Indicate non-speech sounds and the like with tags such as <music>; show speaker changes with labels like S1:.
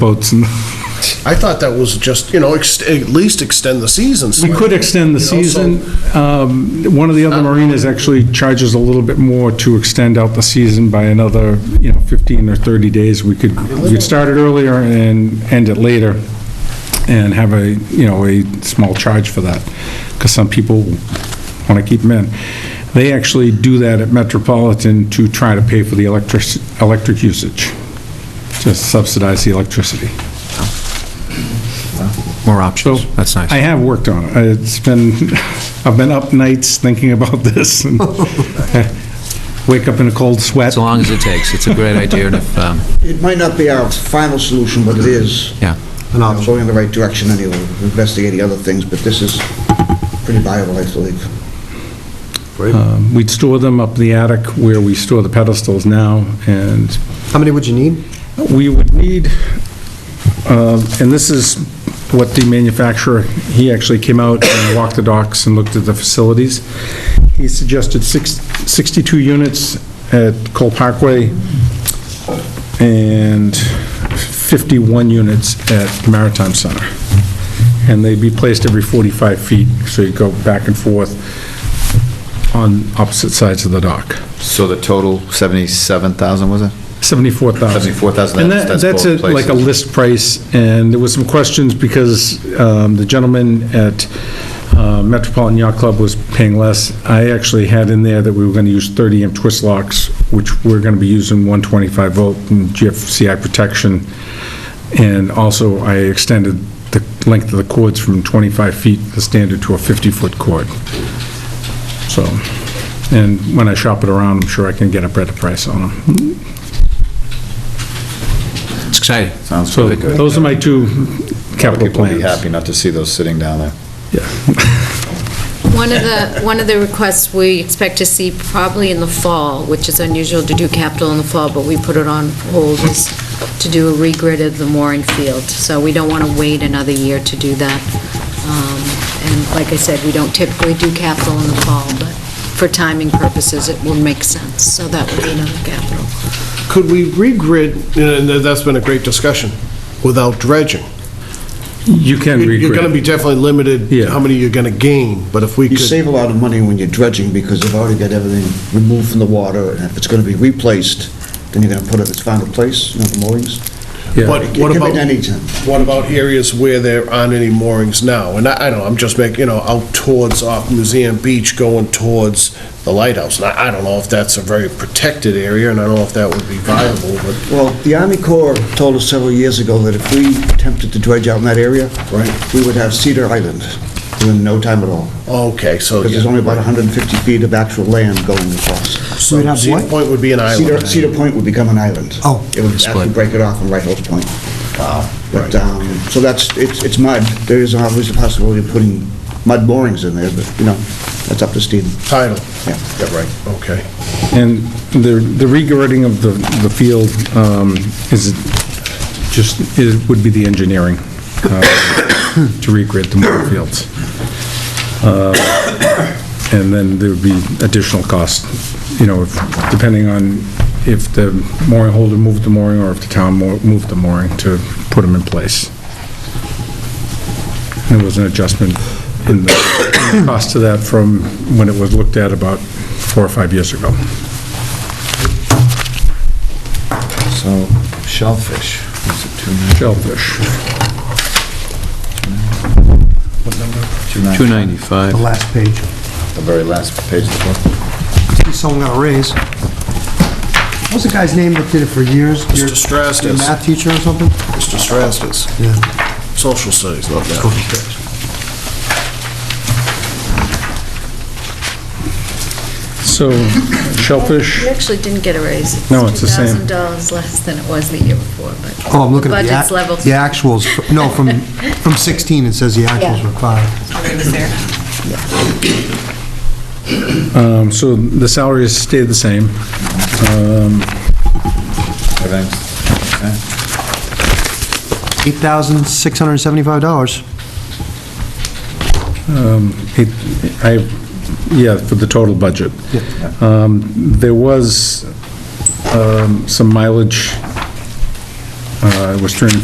S1: boats. and-
S2: I thought that was just, you know, ex- at least extend the season
S1: We
S2: slightly.
S1: could extend the
S2: You know, so-
S1: season. Um, One of the other marinas actually charges a little bit more to extend out the season by another, you know, 15 or 30 days. We could, we could start it earlier and end it later and have a, you know, a small charge for that, because some people want to keep them in. They actually do that at Metropolitan to try to pay for the electric, electric usage, to subsidize the electricity.
S3: More
S1: So
S3: options. That's nice.
S1: I have worked on it. It's been, <laughs> I've been up nights thinking about <laughs> this and wake up in a cold sweat.
S3: As long as it takes. It's a great idea, and if, um,
S4: It might not be our final solution, but it is.
S3: yeah.
S4: An option. Going in the right direction anyway, We're investigating other things, but this is pretty viable, I believe.
S1: Um, We'd store them up in the attic where we store the pedestals now, and
S5: How many would you need?
S1: we would need, um, and this is what the manufacturer, he actually came out and walked the docks and looked at the facilities. He suggested six- 62 units at Cole Parkway and 51 units at Maritime Center. And they'd be placed every 45 feet, so you go back and forth on opposite sides of the dock.
S6: So the total, 77,000, was it?
S1: 74,000.
S6: 74,000,
S1: And
S6: that's-
S1: that,
S6: that's
S1: that's a-
S6: both
S1: like a
S6: places.
S1: list price, and there was some questions because um, the gentleman at uh, Metropolitan Yacht Club was paying less. I actually had in there that we were going to use 30 amp twist locks, which we're going to be using 125 volt and GFCI protection. And also, I extended the length of the cords from 25 feet, the standard, to a 50-foot cord. So, and when I shop it around, I'm sure I can get a better price on them.
S3: It's exciting.
S6: Sounds
S1: So
S6: really good.
S1: those are my two capital
S6: People will be
S1: plans.
S6: happy not to see those sitting down there.
S7: One of the, one of the requests we expect to see probably in the fall, which is unusual to do capital in the fall, but we put it on hold, is to do a regrid of the mooring field. So we don't want to wait another year to do that. Um, And like I said, we don't typically do capital in the fall, but for timing purposes, it will make sense. So that would be another capital.
S2: Could we regrid, and that's been a great discussion, without dredging?
S1: You can
S2: You're- You're going to
S1: regrade.
S2: be definitely limited to
S1: Yeah.
S2: how many you're going to gain, but if we
S4: You
S2: could...
S4: save a lot of money when you're dredging, because you've already got everything removed from the water, and if it's gonna be replaced, then you're gonna put it in its final place, you know, the moorings.
S1: Yeah.
S2: What-
S4: It
S2: what
S4: can be
S2: about-
S4: done anytime.
S2: What about areas where there aren't any moorings now? And I, I don't know, I'm just making, you know, out towards, off Museum Beach, going towards the lighthouse. And I, I don't know if that's a very protected area, and I don't know if that would be viable, but,
S4: Well, the Army Corps told us several years ago that if we attempted to dredge out in that area,
S2: Right.
S4: we would have Cedar Island in no time at all,
S2: okay, so.
S4: because there's only about 150 feet of actual land going across.
S2: So
S5: We'd have
S2: Cedar
S5: what?
S2: Point would be an
S4: Cedar,
S2: island.
S4: Cedar Point would become an island.
S5: Oh.
S4: It would actually
S3: Split.
S4: break it off and right Hills Point. Wow. But, um, so that's, it's, it's mud. There is obviously a possibility of putting mud borings in there, but, you know, that's up to Steve.
S2: Title.
S4: Yeah.
S2: Yeah, right, okay.
S1: And the, the regrading of the, the field um, is just, it would be the engineering uh, to regrade the more fields. Uh, And then there would be additional costs, you know, if- depending on if the mooring holder moved the mooring or if the town mo- moved the mooring to put them in place. There was an adjustment in the in the cost of that from when it was looked at about four or five years ago.
S6: So shellfish, is it
S1: Shellfish.
S6: 290?
S3: 295.
S5: The last page.
S6: The very last page of the book.
S5: Someone got a raise. What was the guy's name that did it for years?
S2: Mr.
S5: Your- Your
S2: Strastus,
S5: math teacher or something?
S2: Mr. Strastus,
S5: Yeah.
S2: social studies, not that.
S1: So shellfish,
S7: You actually didn't get a raise.
S1: No, it's the same.
S7: $2,000 less than it was the year before, but.
S5: Oh, I'm looking at the.
S7: Budget's
S5: act-
S7: level.
S5: The actuals, fr- no, from, from 16, it says the actuals
S7: Yeah.
S5: were five.
S1: um, so the salaries stayed the same.
S6: Everything's- okay.
S5: $8,675.
S1: It- I, yeah, for the total budget. Um, There was um, some mileage, uh, it was turned